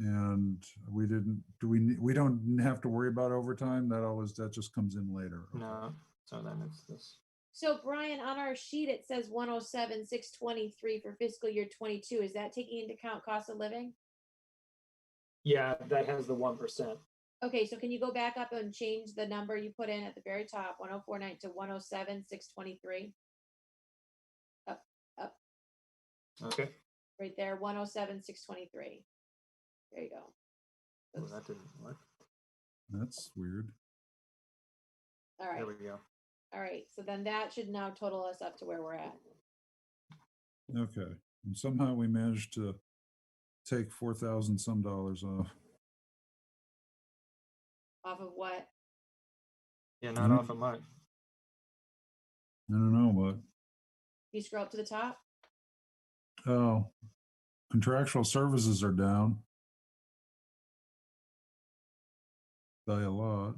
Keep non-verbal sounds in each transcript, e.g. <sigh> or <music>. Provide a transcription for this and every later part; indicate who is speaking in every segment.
Speaker 1: And we didn't, do we, ne- we don't have to worry about overtime? That always, that just comes in later. Okay.
Speaker 2: No, so then it's this.
Speaker 3: So Brian, on our sheet, it says one oh seven, six twenty-three for fiscal year twenty-two. Is that taking into account cost of living?
Speaker 2: Yeah, that has the one percent.
Speaker 3: Okay, so can you go back up and change the number you put in at the very top, one oh four nine to one oh seven, six twenty-three?
Speaker 2: Okay.
Speaker 3: Right there, one oh seven, six twenty-three. There you go.
Speaker 2: Oh, that didn't work.
Speaker 1: That's weird.
Speaker 3: All right,
Speaker 2: There we go.
Speaker 3: all right. So then that should now total us up to where we're at.
Speaker 1: Okay. And somehow we managed to take four thousand some dollars off.
Speaker 3: Off of what?
Speaker 2: Yeah, not
Speaker 1: Mhm.
Speaker 2: off of mine.
Speaker 1: I don't know what.
Speaker 3: You scroll up to the top?
Speaker 1: Oh, contractual services are down. By a lot.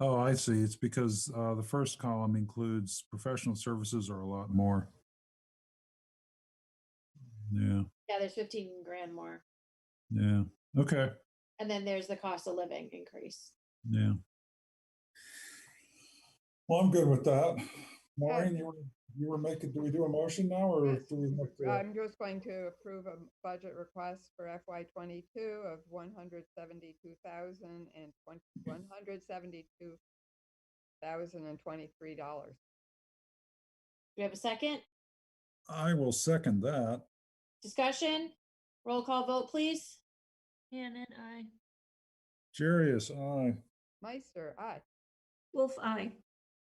Speaker 1: Oh, I see. It's because uh, the first column includes professional services are a lot more. Yeah,
Speaker 3: Yeah, there's fifteen grand more.
Speaker 1: yeah. Okay,
Speaker 3: And then there's the cost of living increase.
Speaker 1: yeah. Well, I'm good with that. Maureen, you were, you were making, do we do a motion now or do
Speaker 4: Yes. Uh,
Speaker 1: we have to?
Speaker 4: I'm just going to approve a budget request for FY twenty-two of one hundred seventy-two thousand and twenty, one hundred seventy-two thousand and twenty-three dollars.
Speaker 3: Do we have a second?
Speaker 1: I will second that.
Speaker 3: Discussion? Roll call vote, please.
Speaker 5: Hannan, I.
Speaker 1: Jarius, aye.
Speaker 4: Meister, aye.
Speaker 5: Wolf, I.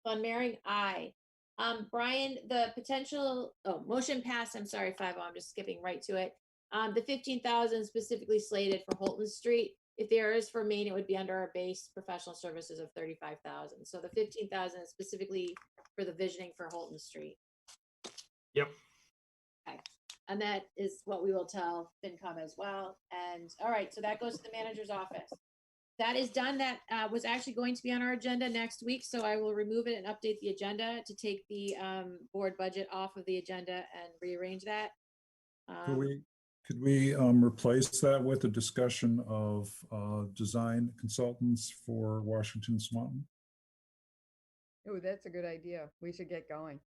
Speaker 3: Von Mering, aye. Um, Brian, the potential, oh, motion passed, I'm sorry, five oh, I'm just skipping right to it. Um, the fifteen thousand specifically slated for Holton Street, if there is for Maine, it would be under our base professional services of thirty-five thousand. So the fifteen thousand is specifically for the visioning for Holton Street.
Speaker 2: Yep.
Speaker 3: Okay, and that is what we will tell FinCom as well. And, all right, so that goes to the manager's office. That is done. That uh, was actually going to be on our agenda next week, so I will remove it and update the agenda to take the um, board budget off of the agenda and rearrange that.
Speaker 1: Could
Speaker 3: Um,
Speaker 1: we, could we um, replace that with a discussion of uh, design consultants for Washington Swanton?
Speaker 4: Oh, that's a good idea. We should get going.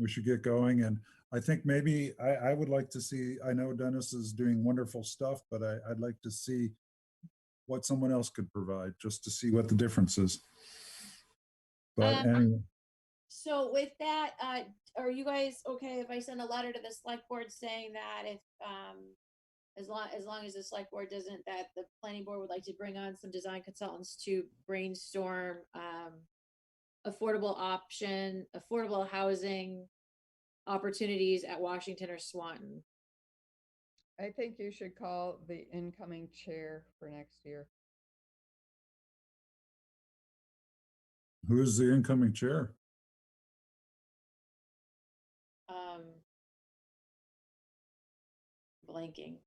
Speaker 1: We should get going, and I think maybe, I, I would like to see, I know Dennis is doing wonderful stuff, but I, I'd like to see what someone else could provide, just to see what the difference is. But
Speaker 3: Um,
Speaker 1: anyway,
Speaker 3: So with that, uh, are you guys okay if I send a letter to the select board saying that if, um, as long, as long as the select board doesn't, that the planning board would like to bring on some design consultants to brainstorm, um, affordable option, affordable housing opportunities at Washington or Swanton?
Speaker 4: I think you should call the incoming chair for next year.
Speaker 1: who's the incoming chair?
Speaker 3: Um, blanking.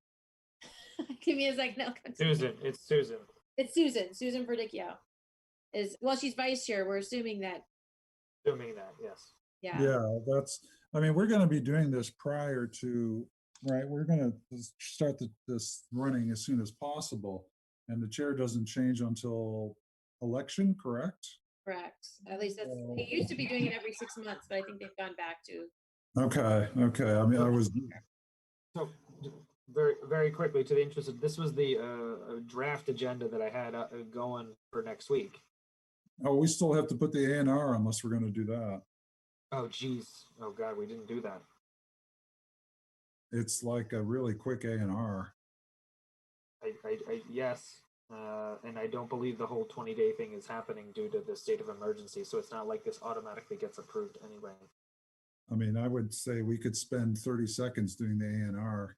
Speaker 3: <laughs> Give me a second. I'll come to-
Speaker 2: Susan, it's Susan.
Speaker 3: It's Susan, Susan Verdicchio. Is, well, she's vice chair. We're assuming that,
Speaker 2: Doing that, yes.
Speaker 3: yeah.
Speaker 1: Yeah, that's, I mean, we're gonna be doing this prior to, right, we're gonna s- start the- this running as soon as possible. And the chair doesn't change until election, correct?
Speaker 3: Correct. At least that's, they used to be doing it every six months, but I think they've gone back to.
Speaker 1: Okay, okay, I mean, I was,
Speaker 2: So j- very, very quickly to the interest of, this was the uh, uh, draft agenda that I had uh, uh, going for next week.
Speaker 1: oh, we still have to put the A and R unless we're gonna do that.
Speaker 2: Oh geez, oh god, we didn't do that.
Speaker 1: It's like a really quick A and R.
Speaker 2: I, I, I yes, uh, and I don't believe the whole twenty day thing is happening due to the state of emergency. So it's not like this automatically gets approved anyway.
Speaker 1: I mean, I would say we could spend thirty seconds doing the A and R.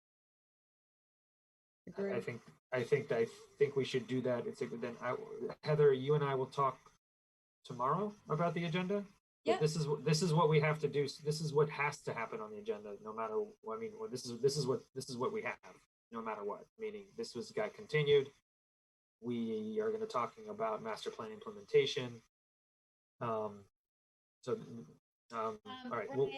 Speaker 2: I- I
Speaker 4: Agreed.
Speaker 2: think I think I think we should do that. It's like, then I, Heather, you and I will talk tomorrow about the agenda. But
Speaker 3: Yeah.
Speaker 2: This is what this is what we have to do. This is what has to happen on the agenda, no matter. I mean, or this is this is what this is what we have, no matter what. Meaning, this was got continued. We are going to talking about master plan implementation. Um. So, um.
Speaker 3: Um,
Speaker 2: all right. Well,
Speaker 3: Ryan,